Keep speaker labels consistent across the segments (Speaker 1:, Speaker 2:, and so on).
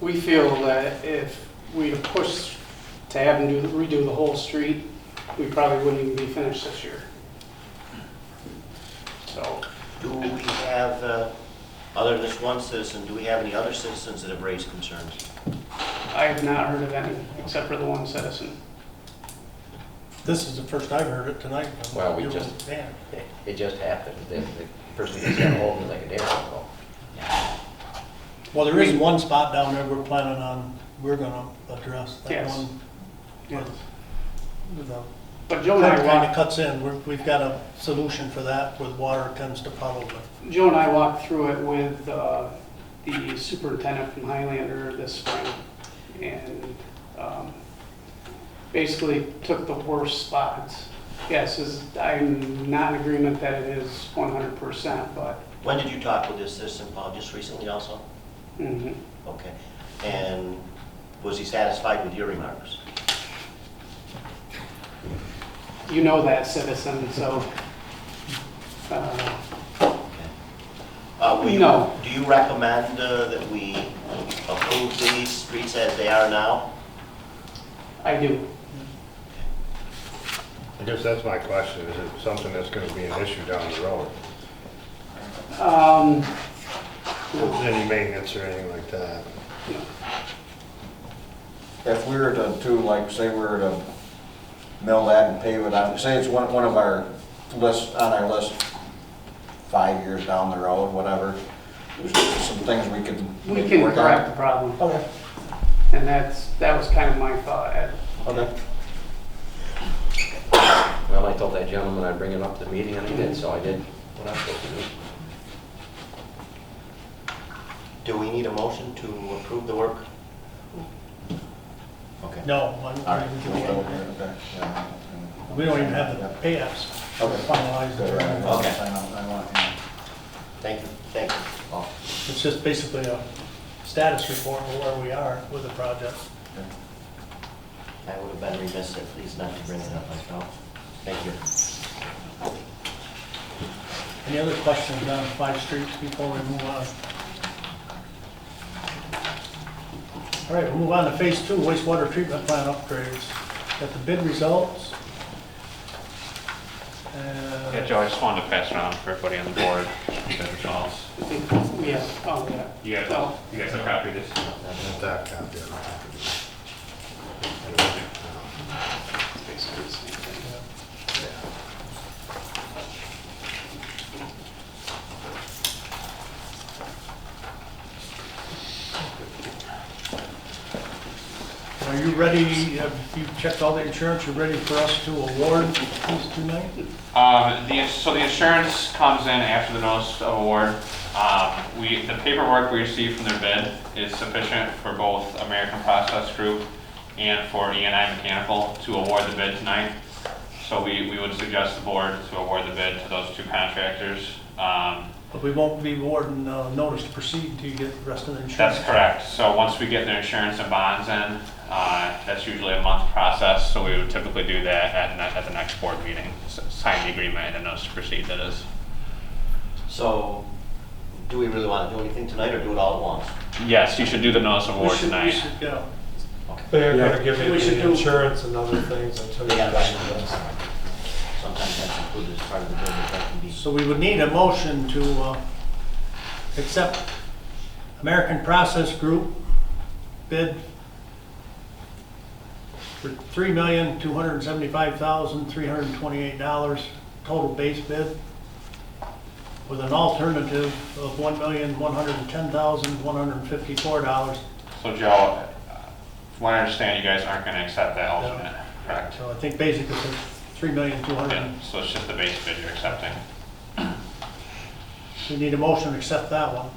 Speaker 1: we feel that if we to push to have them do- redo the whole street, we probably wouldn't even be finished this year. So,
Speaker 2: Do we have, uh, other than this one citizen, do we have any other citizens that have raised concerns?
Speaker 1: I have not heard of any, except for the one citizen.
Speaker 3: This is the first I've heard it tonight. from
Speaker 4: Well, we
Speaker 3: your
Speaker 4: just-
Speaker 3: man.
Speaker 4: It- It just happened, the, the person just got hold of me like a day ago.
Speaker 3: Well, there is one spot down there we're planning on, we're gonna address. That
Speaker 1: Yes.
Speaker 3: one,
Speaker 1: Yes.
Speaker 3: with the
Speaker 1: But Joe and I
Speaker 3: pipeline that
Speaker 1: walked,
Speaker 3: cuts in, We're- we've got a solution for that where the water tends to puddle. but
Speaker 1: Joe and I walked through it with uh, the superintendent from Highlander this spring. And um, basically took the worst spots. Yes, is- I'm not in agreement that it is 100%, but
Speaker 2: When did you talk with this citizen, Paul? Just recently also?
Speaker 1: mhm.
Speaker 2: Okay. And was he satisfied with your remarks?
Speaker 1: you know that citizen, so. uh,
Speaker 2: Uh, will you-
Speaker 1: No.
Speaker 2: Do you recommend uh, that we approve these streets as they are now?
Speaker 1: I do.
Speaker 5: I guess that's my question, is it something that's gonna be an issue down the road?
Speaker 1: Um,
Speaker 5: If there's any maintenance or anything like that?
Speaker 6: If we were to do, like, say we were to mill that and pave it out, say it's one, one of our lists, on our list, five years down the road, whatever, there's some things we could
Speaker 1: We
Speaker 6: maybe
Speaker 1: can
Speaker 6: work
Speaker 1: correct the
Speaker 6: on.
Speaker 1: problem,
Speaker 6: Okay,
Speaker 1: and that's, that was kind of my thought. Ed.
Speaker 6: okay.
Speaker 4: Well, I told that gentleman I'd bring it up to the meeting, and I did, so I did what I'm supposed to do.
Speaker 2: Do we need a motion to approve the work? Okay.
Speaker 3: No, I don't
Speaker 6: All right.
Speaker 3: think we can do
Speaker 6: we'll go
Speaker 3: it.
Speaker 6: there, okay, yeah.
Speaker 3: we don't even have the pay apps
Speaker 6: Okay.
Speaker 3: finalized.
Speaker 6: Good, right, I want-
Speaker 2: Okay.
Speaker 6: I want- I want, yeah.
Speaker 2: Thank you, thank you.
Speaker 6: Oh,
Speaker 3: It's just basically a status report of where we are with the project.
Speaker 6: okay.
Speaker 2: I would have been remiss at least not to bring it up myself. Thank you.
Speaker 3: Any other questions on five streets before we move on? All right, we'll move on to phase two, wastewater treatment plant upgrades. Got the bid results. Uh,
Speaker 7: Yeah, Joe, I just wanted to pass around for everybody on the board, that it's all-
Speaker 1: I think, yeah, oh, yeah.
Speaker 7: You guys,
Speaker 1: So,
Speaker 7: you guys are happy this?
Speaker 5: Not that copy, I don't have to do it.
Speaker 1: it's basically the same thing.
Speaker 3: Are you ready, have you checked all the insurance, you ready for us to award these tonight?
Speaker 7: Um, the, so the insurance comes in after the notice of award. Um, we, the paperwork we received from their bid is sufficient for both American Process Group and for E and I Mechanical to award the bid tonight. So we, we would suggest the board to award the bid to those two contractors. Um,
Speaker 3: But we won't be awarding uh, notice to proceed until you get the rest of the insurance.
Speaker 7: That's correct. So once we get their insurance and bonds in, uh, that's usually a month process, so we would typically do that at, ne- at the next board meeting. S- Sign the agreement and then notice to proceed, that is.
Speaker 2: So, do we really want to do anything tonight or do it all at once?
Speaker 7: Yes, you should do the notice of
Speaker 3: We
Speaker 7: award
Speaker 3: should- we
Speaker 7: tonight.
Speaker 3: should, yeah.
Speaker 8: They're gonna give
Speaker 1: We
Speaker 8: you
Speaker 1: should
Speaker 8: the
Speaker 1: do-
Speaker 8: insurance and other things until
Speaker 2: They
Speaker 8: you
Speaker 2: got
Speaker 8: guys
Speaker 2: that.
Speaker 8: do this.
Speaker 2: Sometimes that's included as part of the bid, but that can be.
Speaker 3: So we would need a motion to uh, accept American Process Group bid for $3,275,328, total base bid, with an alternative of $1,110,154.
Speaker 7: So Joe, uh, from what I understand, you guys aren't gonna accept that alternate, correct?
Speaker 3: So I think basically it's $3,200,000.
Speaker 7: Yeah, so it's just the base bid you're accepting.
Speaker 3: We need a motion to accept that one.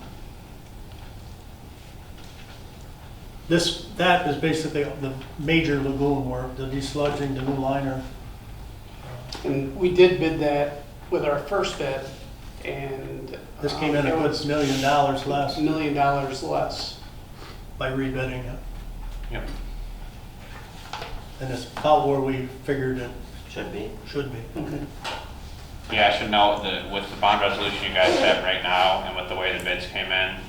Speaker 3: This, that is basically the major lagoon work, the desludging, the new liner.
Speaker 1: And we did bid that with our first bid, and.
Speaker 3: This came in a
Speaker 1: um, it
Speaker 3: good
Speaker 1: was
Speaker 3: million dollars less
Speaker 1: a Million dollars less.
Speaker 3: by rebidding it.
Speaker 7: Yep.
Speaker 3: And it's about where we figured it
Speaker 2: Should be.
Speaker 3: should be.
Speaker 7: Yeah, I should note that with the bond resolution you guys have right now and with the way the bids came in,